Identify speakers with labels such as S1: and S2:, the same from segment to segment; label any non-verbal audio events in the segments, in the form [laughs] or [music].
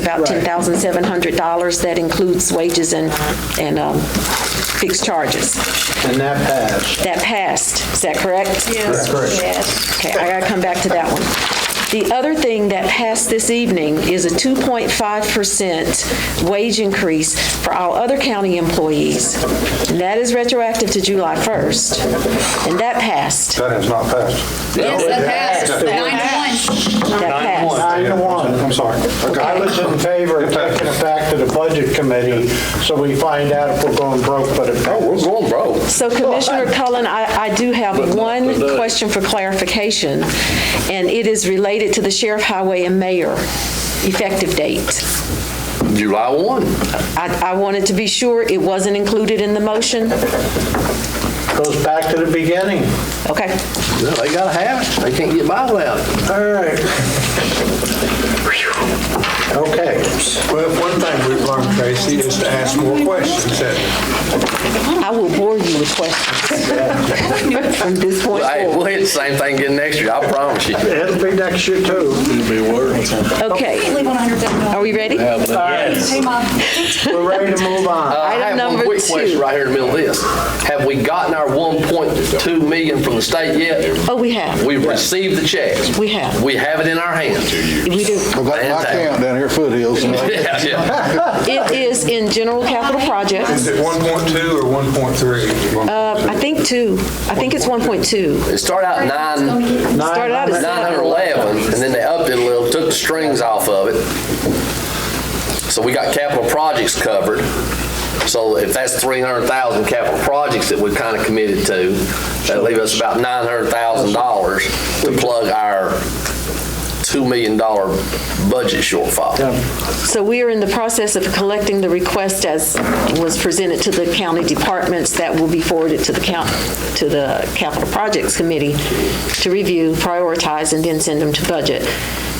S1: about $10,700. That includes wages and, and um, fixed charges.
S2: And that passed.
S1: That passed, is that correct?
S3: Yes.
S2: Correct.
S3: Yes.
S1: Okay, I gotta come back to that one. The other thing that passed this evening is a 2.5% wage increase for all other county employees. And that is retroactive to July 1st. And that passed,
S4: That has not passed.
S5: Yes, that passed,
S4: Yeah.
S5: nine to one.
S1: that
S4: Nine to one.
S1: passed.
S2: Nine to one.
S4: I'm sorry.
S2: I was in favor of taking it back to the budget committee, so we find out if we're going broke, but it
S4: Oh,
S6: We're
S2: passed.
S6: going broke.
S1: So Commissioner Cullen, I, I do have one
S6: today.
S1: question for clarification, and it is related to the sheriff, highway, and mayor effective date.
S6: July 1.
S1: I, I wanted to be sure it wasn't included in the motion.
S2: Goes back to the beginning.
S1: Okay.
S6: No, They gotta have it. They can't get by without it.
S2: All right. Okay.
S4: Well, one thing we've learned, Tracy, is to ask more questions. That-
S1: I will bore you with questions from this point
S6: Hey,
S1: forward.
S6: we'll hit the same thing again next year, I promise you.
S2: It'll be next year too.
S6: It'll be worse.
S1: Okay,
S5: Leave one hundred dollars.
S1: are we ready?
S2: All right,
S5: Hey, Mom.
S2: we're ready to move on.
S6: I
S1: Item
S6: have one
S1: number
S6: quick question
S1: two.
S6: right here in the middle of this. Have we gotten our 1.2 million from the state yet?
S1: Oh, we have.
S6: We've received the checks.
S1: We have.
S6: We have it in our hands. [laughs]
S1: We do.
S7: Well, like my camp down here, at Foothills, and I-
S6: Yeah, yeah.
S1: It is in general capital
S4: Is
S1: projects.
S4: it 1.2 or 1.3?
S1: Uh, I think two, I think it's 1.2.
S6: It started out nine,
S1: Started out as
S6: 911, and then they upped it a little, took the strings off of it. So we got capital projects covered. So if that's 300,000 capital projects that we kind of committed to, that leave us about $900,000 to plug our $2 million budget shortfall.
S1: So we are in the process of collecting the request as was presented to the county departments that will be forwarded to the count, to the Capital Projects Committee to review, prioritize, and then send them to budget.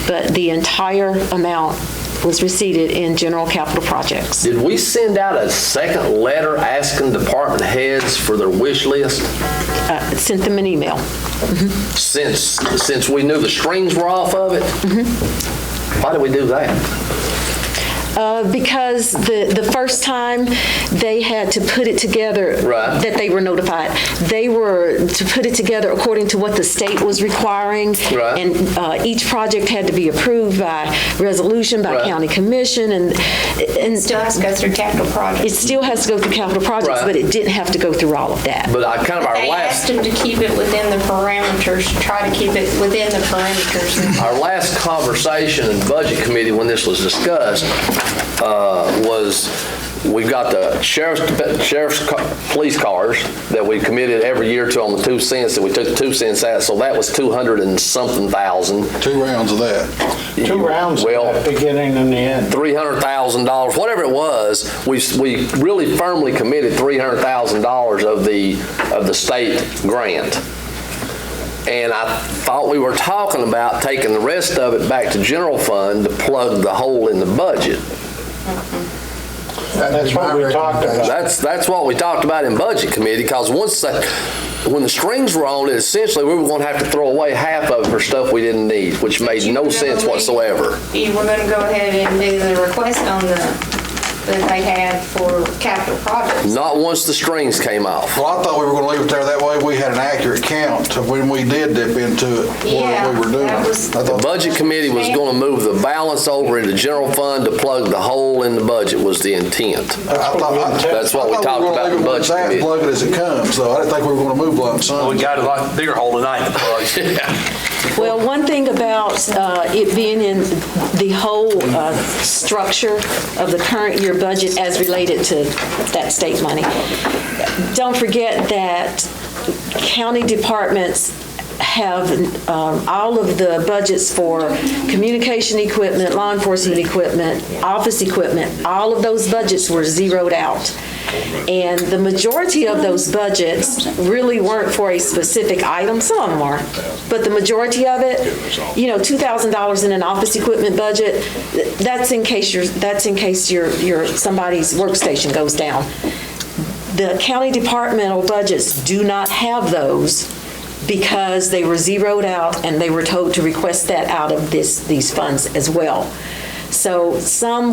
S1: But the entire amount was received in general capital projects.
S6: Did we send out a second letter asking department heads for their wish list?
S1: Uh, Sent them an email.
S6: Since, since we knew the strings were off of it? Why did we do that?
S1: Uh, Because the, the first time they had to put it together.
S6: Right.
S1: That they were notified, they were to put it together according to what the state was requiring.
S6: Right.
S1: And uh, each project had to be approved by resolution, by
S6: Right.
S1: county commission, and, and
S3: Still has to go through capital project.
S1: it still has to go through capital projects,
S6: Right.
S1: but it didn't have to go through all of that.
S6: But I kind of our
S3: They
S6: last,
S3: asked them to keep it within the parameters, try to keep it within the parameters.
S6: our last conversation in Budget Committee when this was discussed uh, was, we've got the sheriff's, sheriff's ca- police cars that we committed every year to on the two cents, that we took the two cents out, so that was 200 and something thousand.
S7: two rounds of that.
S2: Two rounds,
S6: Well,
S2: beginning and the end.
S6: $300,000, whatever it was, we, we really firmly committed $300,000 of the, of the state grant. And I thought we were talking about taking the rest of it back to general fund to plug the hole in the budget.
S2: That's what we talked about.
S6: That's, that's what we talked about in budget committee, because once, that- when the strings were on, essentially, we were going to have to throw away half of it for stuff we didn't need, which made no sense whatsoever.
S3: You were gonna go ahead and do the request on the, that they had for capital projects.
S6: Not once the strings came off.
S7: Well, I thought we were going to leave it there. That way, we had an accurate count of when we did dip into it,
S3: Yeah,
S7: what we were doing.
S3: that was-
S7: I
S6: The
S7: thought-
S6: budget committee was going to move the balance over into general fund to plug the hole in the budget was the intent.
S7: I thought- I-
S6: That's what we
S7: I thought
S6: talked
S7: were gonna
S6: about
S7: leave
S6: in
S7: it where
S6: budget
S7: it's at and
S6: committee.
S7: Plug it as it comes, though. I didn't think we were going to move lump sum.
S8: Well, we got a lot bigger hole tonight to plug.
S1: Well, one thing about uh, it being in the whole uh, structure of the current year budget as related to that state money, don't forget that county departments have um, all of the budgets for communication equipment, law enforcement equipment, office equipment, all of those budgets were zeroed out. And the majority of those budgets really weren't for a specific item, some of them are, but the majority of it, you know, $2,000 in an office equipment budget, th- that's in case your, that's in case your, your, somebody's workstation goes down. The county departmental budgets do not have those because they were zeroed out and they were told to request that out of this, these funds as well. So some